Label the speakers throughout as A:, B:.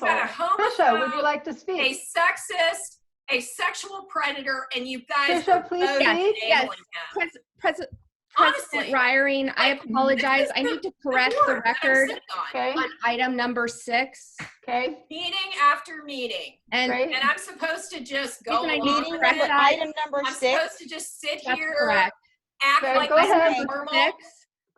A: got a
B: Trisha, would you
A: homophobe,
B: like to
A: a
B: speak?
A: sexist, a sexual predator, and you guys are
B: Trisha, please
A: both
C: yes,
B: speak.
C: yes.
A: enabling him.
C: Pres- Pres-
A: Honestly,
C: President Reiering, I
A: like,
C: apologize.
A: this
C: I
A: is
C: need to correct
A: board
C: the
A: that I'm
C: record
A: sitting on,
B: Okay,
C: on item number six.
B: okay,
A: Meeting after meeting,
C: And
B: great.
A: and I'm supposed to just go
C: Isn't it
A: along
D: Meeting
A: with
C: meeting correct
D: number,
A: it.
D: item number
A: I'm supposed
D: six.
A: to just sit
C: that's
A: here,
C: correct.
A: act
B: Okay,
A: like
B: go
A: this
B: ahead.
A: is normal.
C: Six,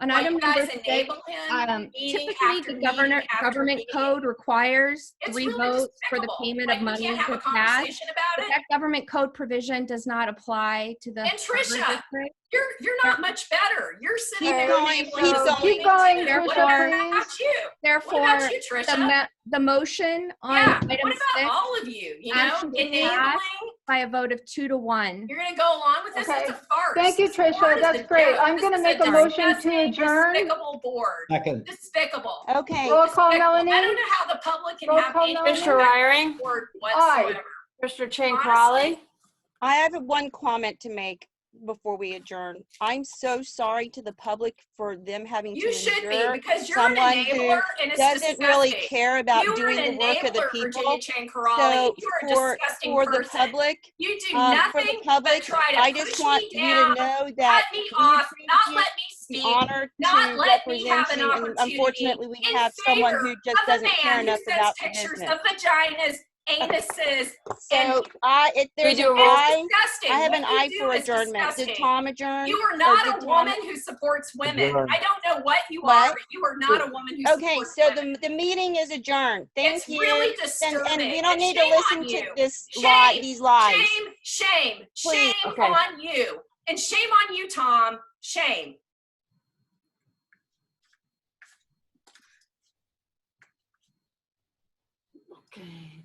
C: on
A: While
C: item
A: you
C: number
A: guys
C: six,
A: enable him.
C: um,
A: meeting
C: typically
A: after
C: the
A: meeting
C: government,
A: after
C: government
A: meeting.
C: code requires
A: It's
C: three
A: really
C: votes for the
A: despicable.
C: payment
A: Like,
C: of
A: we
C: money
A: can't have
C: to
A: a
C: pass.
A: conversation
C: But
A: about it.
C: That government code provision does not apply to the.
A: And
C: Harbor
A: Trisha,
C: District.
A: You're, you're not much better. You're sitting
D: Keep
A: there.
D: going,
A: enabling
D: keep
A: us.
B: So
D: going.
B: keep going,
C: Therefore-
B: Trisha,
A: What
B: please.
A: about you? What
C: Therefore,
A: about you,
C: the,
A: Trisha?
C: mo- the motion on
A: Yeah,
C: item
A: what about
C: six
A: all of you? You know,
C: Action is
A: enabling,
C: passed. by a vote of two to one.
A: you're gonna go along with this, it's a
B: Okay.
A: farce.
B: Thank you,
A: This board
B: Trisha.
A: is
B: That's
A: a
B: great.
A: joke.
B: I'm
A: This
B: gonna
A: is a
B: make a motion to
A: disgusting,
B: adjourn.
A: Despicable board,
E: Second.
A: despicable.
D: Okay,
B: Roll call,
A: Despicable. I
B: Melanie.
A: don't know how the public can
B: Roll
A: have
B: call,
A: any
B: Melanie.
F: Mr. Ryring,
A: board whatsoever.
F: Mr. Chang
A: Honestly.
F: Crowley,
D: I have one comment to make before we adjourn. I'm so sorry to the public for them having to
A: You should be,
D: endure
A: because you're an
D: someone who
A: enabler and it's
D: doesn't really
A: disgusting.
D: care about
A: You are
D: doing the
A: an
D: work of the
A: enabler, Virginia
D: people.
A: Chan
D: So
A: Corrali. You are
D: for,
A: a disgusting
D: for the
A: person.
D: public,
A: You do
D: um, for the
A: nothing but
D: public,
A: try to
D: I
A: push
D: just want
A: me
D: you
A: down,
D: to know
A: cut
D: that
A: me
D: we
A: off, not
D: appreciate
A: let me
D: the
A: speak.
D: honor
A: not
D: to
A: let me have
D: represent
A: an
D: you. and
A: opportunity
D: Unfortunately, we
A: in
D: have someone
A: favor
D: who just
A: of a
D: doesn't care
A: man who
D: enough
A: sends
D: about the
A: pictures
D: business.
A: of vaginas, anuses.
D: So I, if there's
F: do a
D: an
F: roll-
D: eye,
A: It's disgusting.
D: I have
A: What
D: an
A: you
D: eye
A: do
D: for
A: is
D: adjournment. Did
A: disgusting.
D: Tom adjourn?
A: You are
D: did
A: not a
D: Tom-
A: woman who supports women.
E: Adjourn.
A: I don't know what you are,
D: What?
A: but you are not a woman who
D: Okay,
A: supports
D: so
A: women.
D: the, the meeting is adjourned. Thank
A: It's
D: you.
A: really
D: And,
A: disturbing.
D: and we don't
A: It's
D: need to
A: shame on
D: listen to
A: you.
D: this lie,
A: Shame,
D: these lies.
A: Shame, shame,
D: Please,
A: shame
F: okay.
A: on you. And shame on you, Tom. Shame.
F: Okay.